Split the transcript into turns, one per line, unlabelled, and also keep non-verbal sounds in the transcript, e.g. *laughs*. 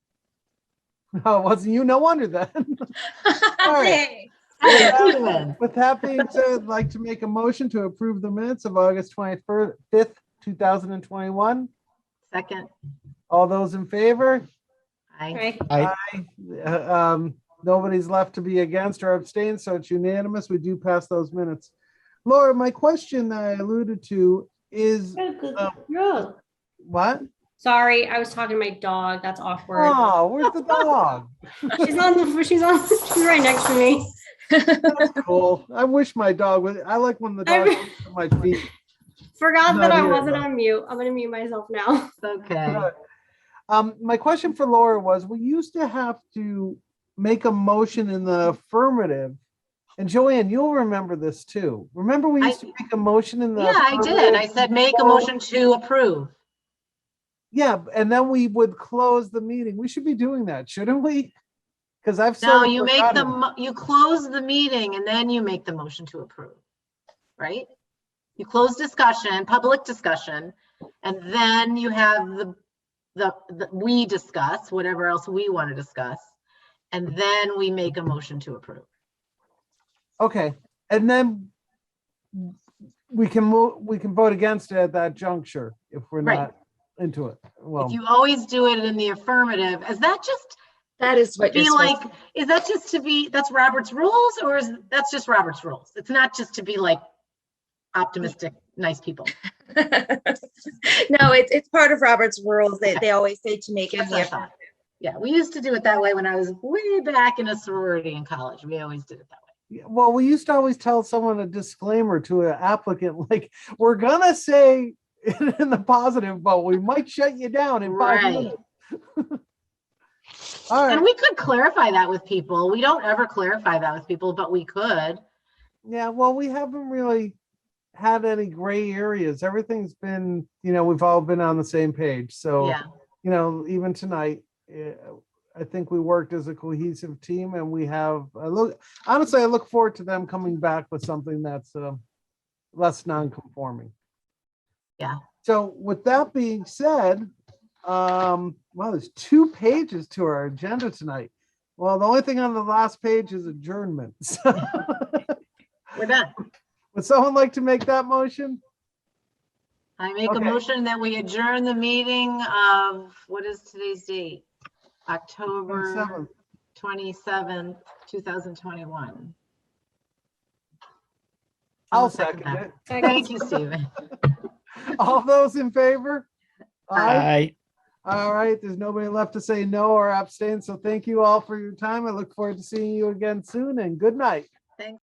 No, it wasn't you. No wonder then. *laughs* All right.
Hey,
With that being said, I'd like to make a motion to approve the minutes of August 25th, 2021.
Second,
All those in favor?
aye.
Right,
Uh, um, Nobody's left to be against or abstain, so it's unanimous. We do pass those minutes. Laura, my question that I alluded to is um, what?
sorry, I was talking to my dog. That's awkward.
Oh, where's the dog?
She's on the, she's on, *laughs* she's right next to me.
Cool. I wish my dog was, I like when the
I
dog
re-
jumps on my feet.
Forgot
Not
that I
here,
wasn't
though.
on mute. I'm gonna mute myself now. *laughs*
Okay.
Um, my question for Laura was, we used to have to make a motion in the affirmative. And Joanne, you'll remember this too. Remember we
I-
used to make a motion in the.
Yeah, I did. I
affirmative?
said make a motion to approve.
Yeah, and then we would close the meeting. We should be doing that, shouldn't we? Because I've.
No,
sort of
you make the,
forgotten.
mo- you close the meeting and then you make the motion to approve, right? You close discussion, public discussion, and then you have the, the, the- we discuss whatever else we want to discuss. And then we make a motion to approve.
Okay, and then we can move, we can vote against it at that juncture if we're
Right.
not into it.
If
Well,
you always do it in the affirmative, is that just
That is what you're
be
supposed
like, is that just to be, that's Robert's rules or is, that's just Robert's rules? It's not just to be like optimistic, nice people.
*laughs* No, it's, it's part of Robert's rules. They, they always say to make it.
That's what I thought. Yeah, we used to do it that way when I was way back in a sorority in college. We always did it that way.
well, we used to always tell someone a disclaimer to an applicant, *laughs* like, we're gonna say *laughs* it in the positive, but we might shut you down in five
Right.
minutes. *laughs* All
And
right,
we could clarify that with people. We don't ever clarify that with people, but we could.
yeah, well, we haven't really had any gray areas. Everything's been, you know, we've all been on the same page, so.
Yeah,
you know, even tonight, eh, I think we worked as a cohesive team and we have, I look, honestly, I look forward to them coming back with something that's um, less non-conforming.
Yeah.
So with that being said, um, well, there's two pages to our agenda tonight. Well, the only thing on the last page is adjournment. *laughs* So
we're done.
Would someone like to make that motion?
I make
Okay.
a motion that we adjourn the meeting of, what is today's date? October
Seven.
27th, 2021.
I'll
I'll
second
second
it.
Thank you, Stephen.
*laughs* All those in favor? Aye.
Aye.
All right, there's nobody left to say no or abstain, so thank you all for your time. I look forward to seeing you again soon and good night.